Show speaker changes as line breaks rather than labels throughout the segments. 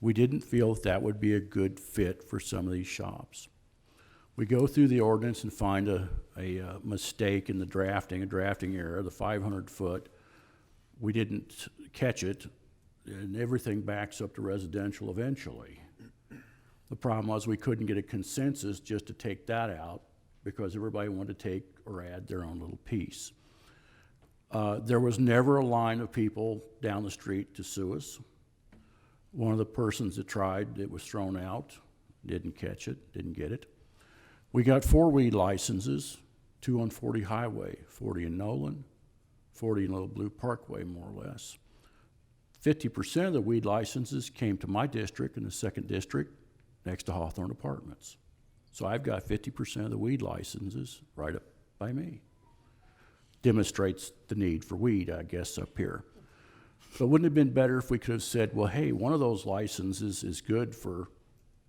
We didn't feel that that would be a good fit for some of these shops. We go through the ordinance and find a, a uh, mistake in the drafting, a drafting error, the five hundred foot. We didn't catch it, and everything backs up to residential eventually. The problem was we couldn't get a consensus just to take that out because everybody wanted to take or add their own little piece. Uh, there was never a line of people down the street to sue us. One of the persons that tried, it was thrown out, didn't catch it, didn't get it. We got four weed licenses, two on forty highway, forty in Nolan, forty in Little Blue Parkway, more or less. Fifty percent of the weed licenses came to my district in the second district, next to Hawthorne Apartments. So I've got fifty percent of the weed licenses right up by me. Demonstrates the need for weed, I guess, up here. But wouldn't it have been better if we could have said, well, hey, one of those licenses is good for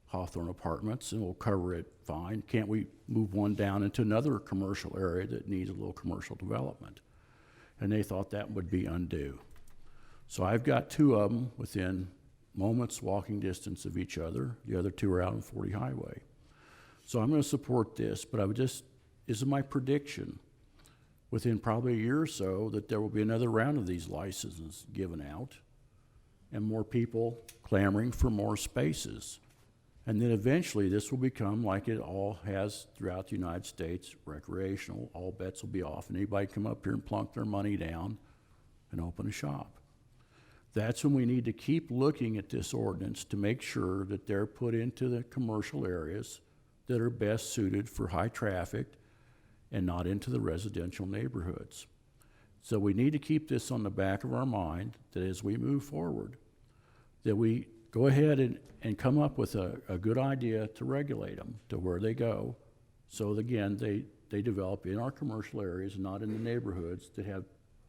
Hawthorne Apartments and we'll cover it fine. Can't we move one down into another commercial area that needs a little commercial development? And they thought that would be undue. So I've got two of them within moments walking distance of each other. The other two are out on 40 Highway. So I'm going to support this, but I would just, this is my prediction within probably a year or so that there will be another round of these licenses given out and more people clamoring for more spaces. And then eventually, this will become like it all has throughout the United States, recreational, all bets will be off, and anybody come up here and plunk their money down and open a shop. That's when we need to keep looking at this ordinance to make sure that they're put into the commercial areas that are best suited for high traffic and not into the residential neighborhoods. So we need to keep this on the back of our mind, that as we move forward, that we go ahead and, and come up with a, a good idea to regulate them to where they go. So that, again, they, they develop in our commercial areas, not in the neighborhoods that have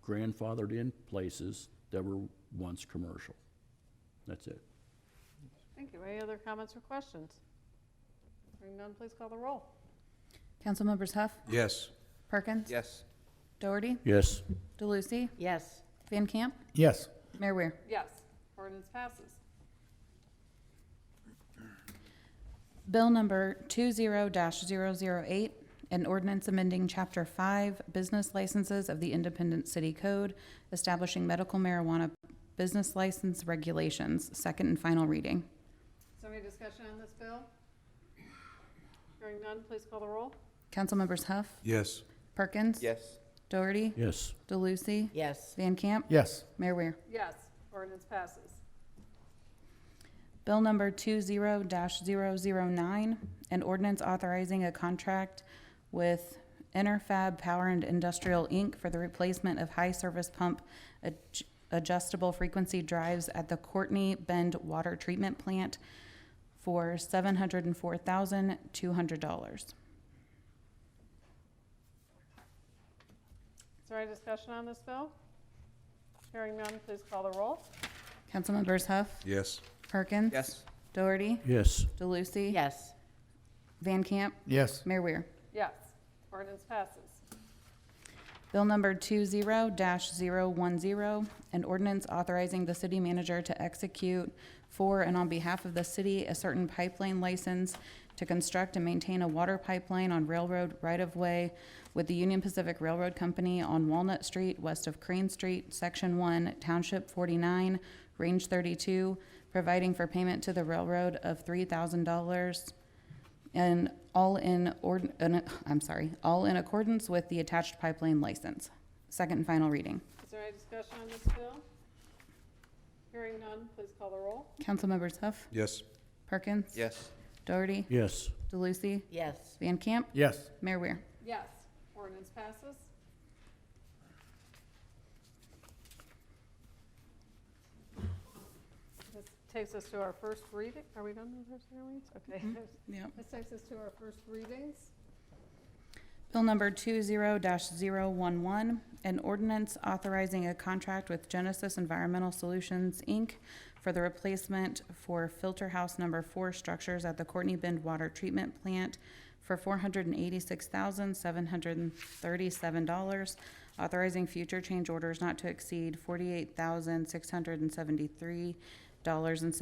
grandfathered in places that were once commercial. That's it.
Thank you. Any other comments or questions? Hearing none, please call the roll.
Council members Huff,
Yes.
Perkins,
Yes.
Doherty,
Yes,
DeLucy,
Yes.
Van Camp,
Yes.
Mayor Weir.
Yes. Ordinance passes.
Bill number 20-008, an ordinance amending Chapter 5 Business Licenses of the Independent City Code, establishing medical marijuana business license regulations, second and final reading.
Is there any discussion on this bill? Hearing none, please call the roll.
Council members Huff,
Yes.
Perkins,
Yes.
Doherty,
yes,
DeLucy,
Yes,
Van Camp,
Yes.
Mayor Weir.
Yes. Ordinance passes.
Bill number 20-009, an ordinance authorizing a contract with Interfab Power and Industrial, Inc. for the replacement of high-service pump adj- adjustable frequency drives at the Courtney Bend Water Treatment Plant for $704,200.
Is there any discussion on this bill? Hearing none, please call the roll.
Councilmembers Huff,
Yes.
Perkins.
Yes.
Doherty.
yes,
DeLucy.
yes,
Van Camp.
Yes.
Mayor Weir.
Yes. Ordinance passes.
Bill number 20-010, an ordinance authorizing the city manager to execute for and on behalf of the city a certain pipeline license to construct and maintain a water pipeline on railroad right-of-way with the Union Pacific Railroad Company on Walnut Street, west of Crane Street, Section 1, Township 49, Range 32, providing for payment to the railroad of $3,000 and all in ord, an- I'm sorry, all in accordance with the attached pipeline license. Second and final reading.
Is there any discussion on this bill? Hearing none, please call the roll.
Councilmembers Huff,
Yes.
Perkins.
Yes.
Doherty.
yes,
DeLucy.
yes,
Van Camp.
Yes.
Mayor Weir.
Yes. Ordinance passes. This takes us to our first reading. Are we done with the first readings? Okay.
Yep.
Mm-hmm. This takes us to our first readings.
Bill number 20-011, an ordinance authorizing a contract with Genesis Environmental Solutions, Inc. for the replacement for filter house number four structures at the Courtney Bend Water Treatment Plant for $486,737, authorizing future change orders not to exceed $48,673.07.